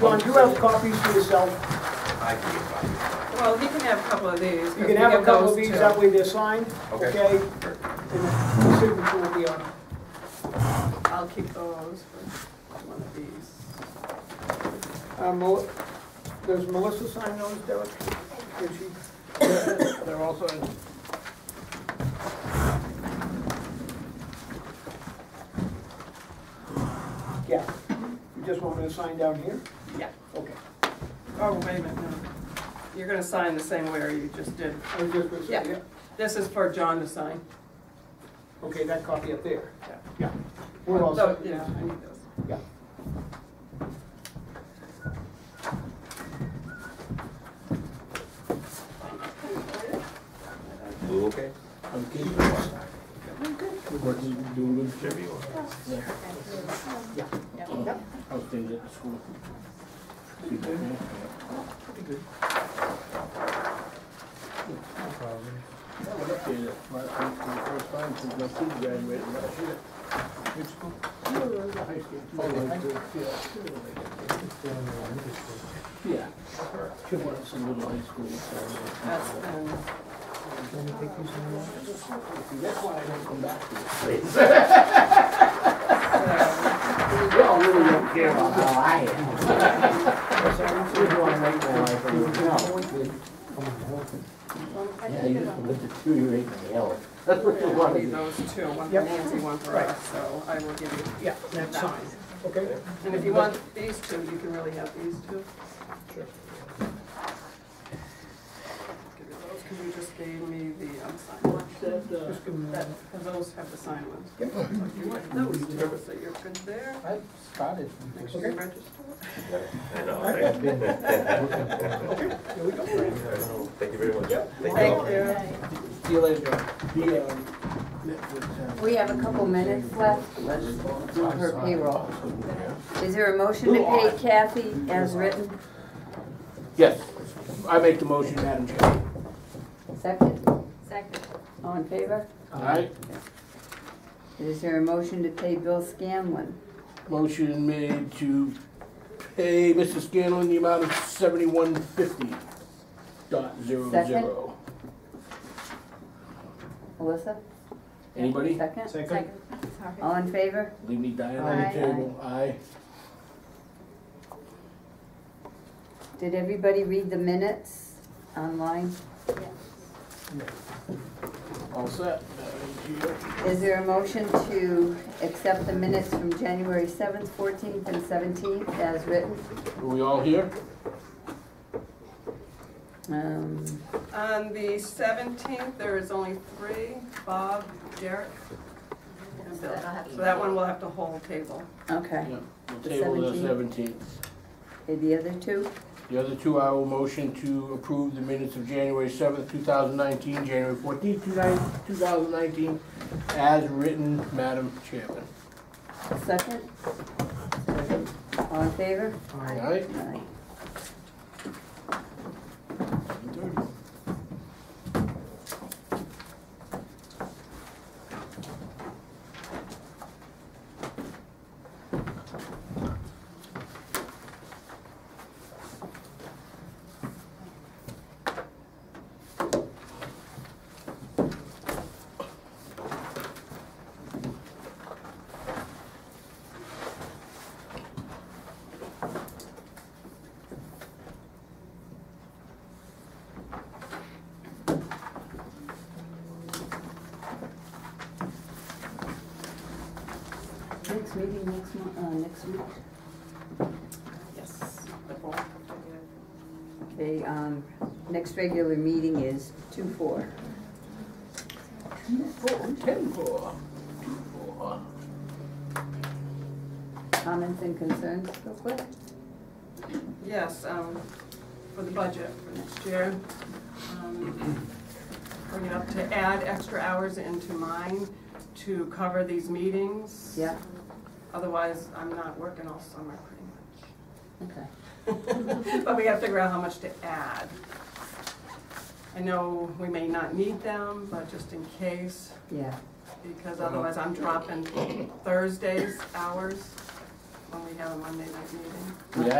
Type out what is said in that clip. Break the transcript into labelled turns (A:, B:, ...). A: John, do you have copies for yourself?
B: I can get by.
C: Well, he can have a couple of these.
A: You can have a couple of these, that
C: up.
A: way they're signed,
B: Okay.
A: okay? And the signature will be on.
C: I'll keep those for one of these.
A: Uh, Mel- Does Melissa sign those, Derek? Did she? They're all signed. Yeah, you just want me to sign down here?
C: Yeah.
A: Okay.
C: Oh, wait a minute, no. You're gonna sign the same way you just did.
A: I was just gonna say,
C: Yeah.
A: yeah,
C: This is for John to sign.
A: okay, that copy up there.
C: Yeah.
A: Yeah. We're all
C: So,
A: set.
C: Yeah, I need those.
A: Yeah.
B: Blue, okay?
D: I'm good. Working, doing good.
B: Whatever you want.
D: I was doing it at school. I went up there my- for the first time since my kid graduated last year. High school. Yeah. She went to some little high school. so-
C: That's, um,
D: That's why I don't come back to it.
C: so,
D: We all really don't care about how I am. We're doing right now, I think. Yeah, you just live deteriorating the hell. That's what you
C: I
D: want to
C: need
D: do.
C: those two, one for
A: Yep.
C: Nancy, one for us, so I will give you.
A: Yeah, that's signed, okay?
C: And if you want these two, you can really have these two.
B: Sure.
C: Give you those, because you just gave me the unsigned one.
A: Just give them that.
C: That, 'cause those have the signed ones. So You want those two, so you're good there.
D: I started.
C: Make sure you register.
B: I know, thank you.
A: There we go.
B: Thank you very much.
C: Thank you.
D: See you later. The, um, that was, um,
E: We have a couple minutes left. Let's do her payroll. Is there a motion to pay Kathy as written?
D: Yes, I make the motion, Madam Chair.
E: Second? Second. All in favor?
D: All right,
E: Is there a motion to pay Bill Scanlon?
D: motion made to pay Mr. Scanlon the amount of seventy-one fifty dot zero zero.
E: Melissa?
D: Anybody?
E: Second?
A: Second.
E: All in favor?
D: Leave me dying on the
E: Aye.
D: table, aye.
E: Did everybody read the minutes online?
D: All set, Madam Chair.
E: Is there a motion to accept the minutes from January 7th, 14th, and 17th as written?
D: Are we all here?
E: Um,
C: On the seventeenth, there is only three, Bob, Derek, and Bill. So that one will have to hold table.
E: Okay.
D: Yep. We'll
E: The
D: table the
E: 17th.
D: seventeenth.
E: Okay, The other two?
D: The other two, I will motion to approve the minutes of January seventh, two thousand nineteen, January fourteenth, two thousand nineteen, as written, Madam Chairman.
E: Second? All in favor?
D: All right?
E: Aye. Next meeting, next month, uh, next week,
C: Yes. The fourth.
E: okay, um, next regular meeting is two four.
D: Four, ten, four, two, four.
E: Comments and concerns, real quick?
C: Yes, um, for the budget for next year. Um, Bring it up to add extra hours into mine to cover these meetings.
E: Yeah,
C: Otherwise, I'm not working all summer pretty
E: okay.
C: much. But we gotta figure out how much to add. I know we may not need them, but just in case,
E: Yeah,
C: because otherwise I'm dropping Thursday's hours when we have a Monday night meeting.
D: Yeah,